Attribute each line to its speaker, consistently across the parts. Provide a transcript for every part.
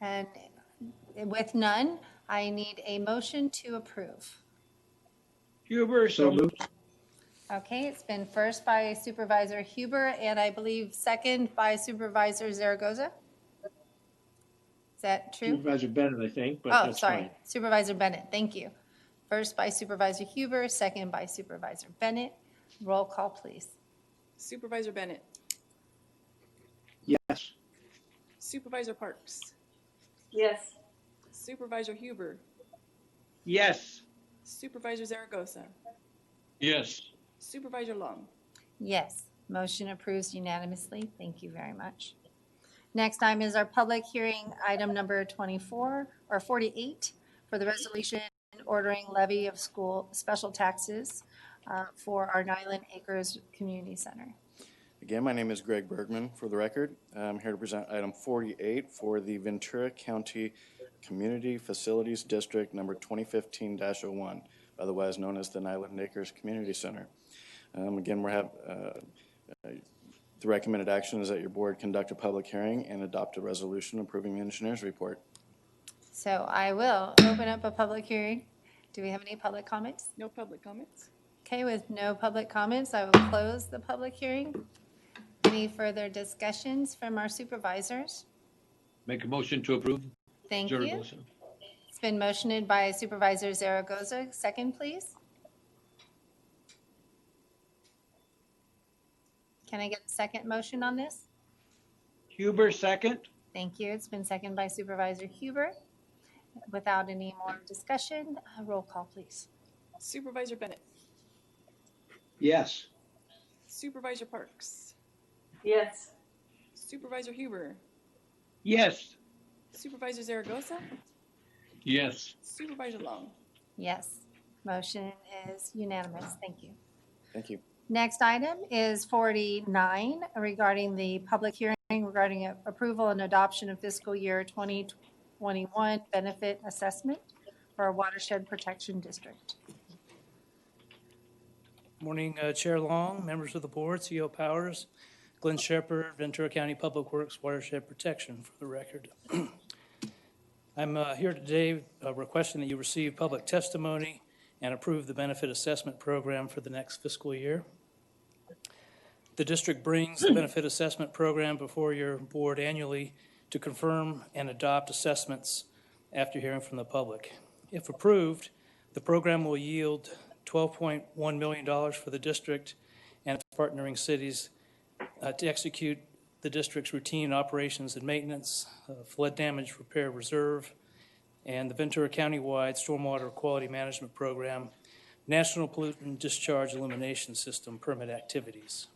Speaker 1: And with none, I need a motion to approve.
Speaker 2: Huber, so moved.
Speaker 1: Okay, it's been first by Supervisor Huber and I believe second by Supervisor Zaragoza. Is that true?
Speaker 2: Supervisor Bennett, I think, but
Speaker 1: Oh,
Speaker 2: that's
Speaker 1: sorry,
Speaker 2: fine.
Speaker 1: Supervisor Bennett, thank you. First by Supervisor Huber, second by Supervisor Bennett. Roll call, please.
Speaker 3: Supervisor Bennett.
Speaker 2: Yes.
Speaker 3: Supervisor Parks.
Speaker 4: yes,
Speaker 3: Supervisor Huber.
Speaker 2: Yes.
Speaker 3: Supervisor Zaragoza.
Speaker 2: Yes.
Speaker 3: Supervisor Long.
Speaker 1: Yes, motion approves unanimously. Thank you very much. Next item is our public hearing, item number 24 or 48, for the resolution ordering levy of school special taxes uh, for our Nyland Acres Community Center.
Speaker 5: Again, my name is Greg Bergman, for the record. I'm here to present item 48 for the Ventura County Community Facilities District Number 2015-01, otherwise known as the Nyland Acres Community Center. Um, Again, we have, uh, uh, the recommended action is that your board conduct a public hearing and adopt a resolution approving the engineer's report.
Speaker 1: So I will open up a public hearing. Do we have any public comments?
Speaker 3: No public comments.
Speaker 1: Okay, with no public comments, I will close the public hearing. Any further discussions from our supervisors?
Speaker 6: Make a motion to approve.
Speaker 1: Thank you.
Speaker 6: Zaragoza.
Speaker 1: It's been motioned by Supervisor Zaragoza. Second, please. Can I get a second motion on this?
Speaker 2: Huber, second.
Speaker 1: Thank you. It's been seconded by Supervisor Huber. Without any more discussion, uh, roll call, please.
Speaker 3: Supervisor Bennett.
Speaker 2: Yes.
Speaker 3: Supervisor Parks.
Speaker 4: yes,
Speaker 3: Supervisor Huber.
Speaker 2: Yes.
Speaker 3: Supervisor Zaragoza.
Speaker 6: Yes.
Speaker 3: Supervisor Long.
Speaker 1: Yes, motion is unanimous. Thank you.
Speaker 5: Thank you.
Speaker 1: Next item is 49 regarding the public hearing regarding a- approval and adoption of fiscal year 2021 benefit assessment for a watershed protection district.
Speaker 7: Morning, uh, Chair Long, members of the board, CEO Powers, Glenn Shepherd, Ventura County Public Works Watershed Protection, for the record. I'm uh, here today uh, requesting that you receive public testimony and approve the benefit assessment program for the next fiscal year. The district brings the benefit assessment program before your board annually to confirm and adopt assessments after hearing from the public. If approved, the program will yield $12.1 million for the district and its partnering cities uh, to execute the district's routine operations and maintenance, uh, flood damage repair reserve, and the Ventura County-wide stormwater quality management program, National Pollutant Discharge Elimination System permit activities.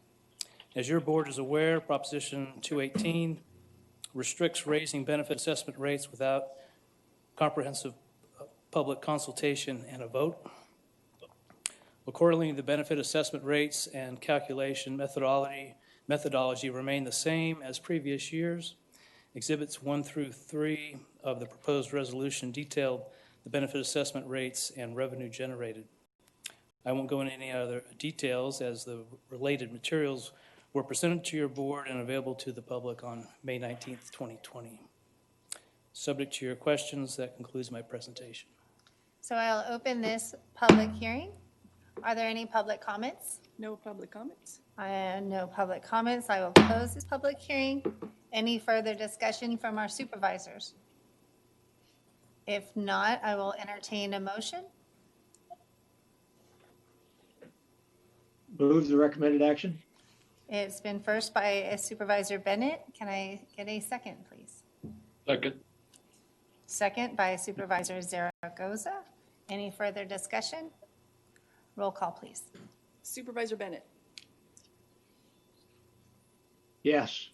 Speaker 7: As your board is aware, Proposition 218 restricts raising benefit assessment rates without comprehensive uh, public consultation and a vote. Accordingly, the benefit assessment rates and calculation methodology, methodology remain the same as previous years. Exhibits one through three of the proposed resolution detail the benefit assessment rates and revenue generated. I won't go into any other details as the related materials were presented to your board and available to the public on May 19th, 2020. Subject to your questions, that concludes my presentation.
Speaker 1: So I'll open this public hearing. Are there any public comments?
Speaker 3: No public comments.
Speaker 1: Uh, No public comments. I will close this public hearing. Any further discussion from our supervisors? If not, I will entertain a motion.
Speaker 2: Move the recommended action.
Speaker 1: It's been first by Supervisor Bennett. Can I get a second, please?
Speaker 6: Second.
Speaker 1: Second by Supervisor Zaragoza. Any further discussion? Roll call, please.
Speaker 3: Supervisor Bennett.
Speaker 2: Yes.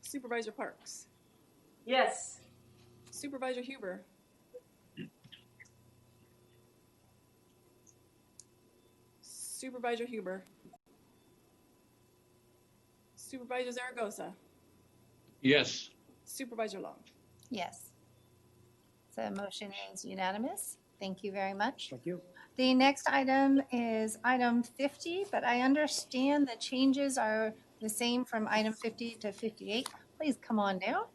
Speaker 3: Supervisor Parks.
Speaker 4: yes.
Speaker 3: Supervisor Huber. Supervisor Huber. Supervisor Zaragoza.
Speaker 6: Yes.
Speaker 3: Supervisor Long.
Speaker 1: Yes. So motion is unanimous. Thank you very much.
Speaker 7: Thank you.
Speaker 1: The next item is item 50, but I understand the changes are the same from item 50 to 58. Please come on down.